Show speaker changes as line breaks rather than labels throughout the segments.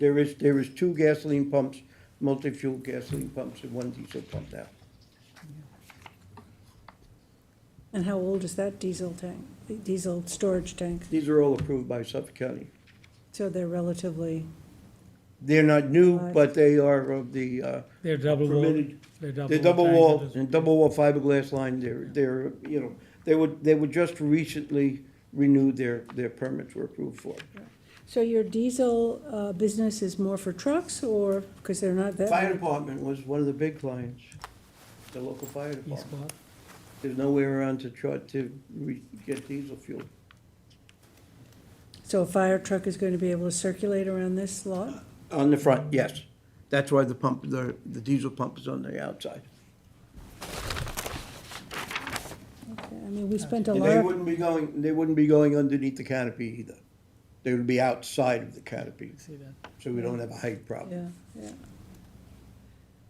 There is, there is two gasoline pumps, multi-fuel gasoline pumps and one diesel pump now.
And how old is that diesel tank, diesel storage tank?
These are all approved by Suffolk County.
So they're relatively,
They're not new,
Right.
but they are of the, uh,
They're double wall.
permitted,
They're
they're double wall,
tank.
and double wall fiberglass line, they're, they're, you know, they would, they were just recently renewed, their, their permits were approved for.
so your diesel uh, business is more for trucks or, because they're not that?
Fire department was one of the big clients, the local fire
Yes,
department.
Bob.
There's no way around to try to re- get diesel fuel.
So a fire truck is going to be able to circulate around this lot?
On the front, yes. That's why the pump, the, the diesel pump is on the outside.
Okay, I mean, we spent a
And they
lot,
wouldn't be going, they wouldn't be going underneath the canopy either. They would be outside of the canopy,
You See that?
so we don't have a height problem.
yeah, yeah.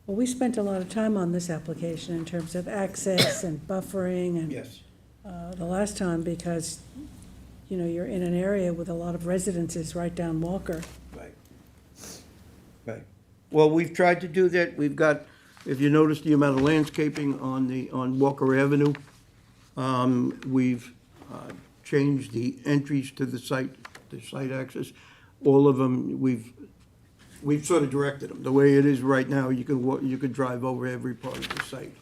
Well, we spent a lot of time on this application in terms of access and buffering and
Yes,
uh, the last time because, you know, you're in an area with a lot of residences right down Walker.
right. Right. Well, we've tried to do that. We've got, if you notice the amount of landscaping on the, on Walker Avenue, um, we've, uh, changed the entries to the site, the site access. All of them, we've, we've sort of directed them. The way it is right now, you can, wa- you could drive over every part of the site.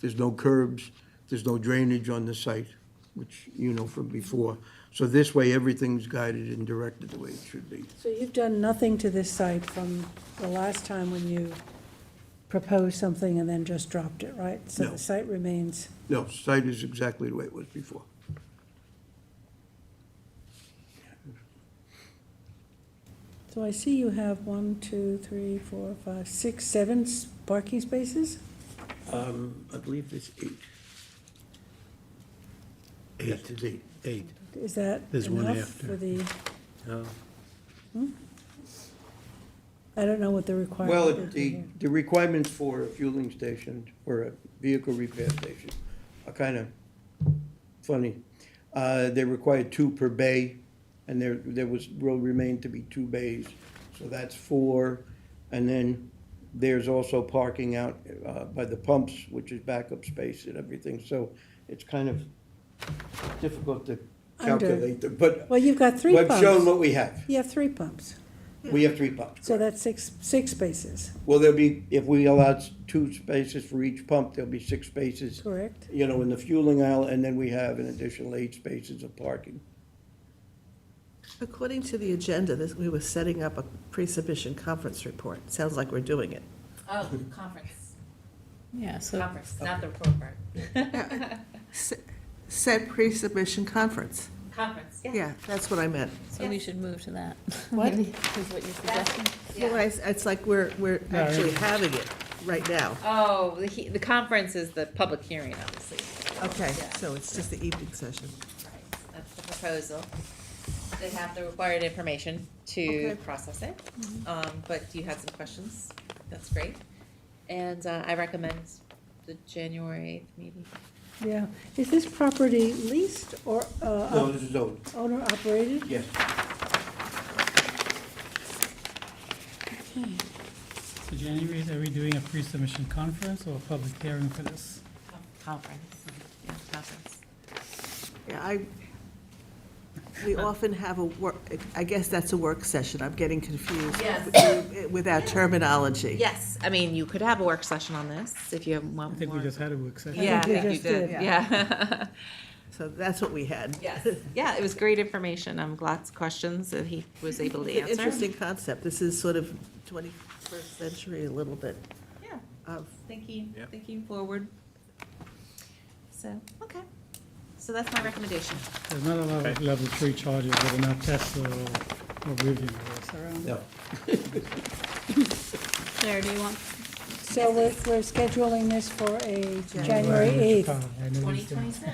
There's no curbs, there's no drainage on the site, which you know from before. So this way, everything's guided and directed the way it should be.
So you've done nothing to this site from the last time when you proposed something and then just dropped it, right? So
No.
the site remains,
No, site is exactly the way it was before.
so I see you have one, two, three, four, five, six, seven s- parking spaces?
Um, I believe it's eight. Eight is eight.
Eight,
Is that
There's one
enough
after.
for the, Hmm?
no,
I don't know what the requirement
Well,
would be
the,
here.
the requirements for a fueling station or a vehicle repair station are kind of funny. Uh, they require two per bay, and there, there was, will remain to be two bays, so that's four. And then there's also parking out, uh, by the pumps, which is backup space and everything, so it's kind of difficult to
Under-
calculate, the- but
Well, you've got three
we've shown
pumps.
what we have.
You have three pumps,
We have three pumps.
so that's six, six spaces,
Well, there'll be, if we allow s- two spaces for each pump, there'll be six spaces,
correct?
you know, in the fueling aisle, and then we have an additional eight spaces of parking.
According to the agenda, this, we were setting up a pre-submission conference report. Sounds like we're doing it.
Oh, conference,
Yeah, so
conference, not the report part.
Said pre-submission conference.
Conference.
Yeah, that's what I meant.
so we should move to that.
What?
Maybe Is what you're suggesting?
Well, I, it's like we're, we're
No, I
actually having it right now.
Oh, the, he- the conference is the public hearing, obviously.
Okay,
Yeah.
so it's just the evening session.
Right. That's the proposal. They have the required information to
Okay.
process it. Um, but you had some questions, that's great. And, uh, I recommend the January eighth meeting.
Yeah, is this property leased or
No,
uh,
this is old,
owner-operated?
yes.
So January, are we doing a pre-submission conference or a public hearing for this?
Conference, yeah, conference.
Yeah, I, we often have a work, I guess that's a work session. I'm getting confused.
Yes.
With our terminology.
Yes, I mean, you could have a work session on this if you have one
I
more.
think we just had a work session.
Yeah, I
think we
think you
just
did,
did.
yeah.
So that's what we had.
Yes, yeah, it was great information. Um, lots of questions that he was able to
It's an
answer.
interesting concept. This is sort of 21st century, a little bit Um,
Yeah,
of
thinking,
Yep.
thinking forward. So, okay, so that's my recommendation.
There's not a lot of level three charges with enough Tesla or or Rivian or around.
No,
Claire, do you want?
So we're, we're scheduling this for a January 8th.
Twenty twenty-six.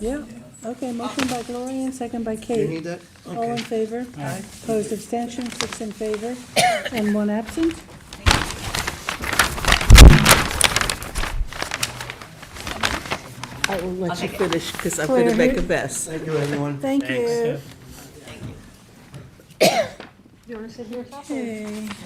Yeah, okay, motion by Gloria and second by
you
Kate.
need that?
All in
Okay.
favor? Aye. Opposed, abstention, six in favor, and one absent.
I will let you
Okay.
finish because I'm going to
Claire,
make
who-
a mess.
Thank you, everyone.
Thank you.
you want to sit here?
Okay.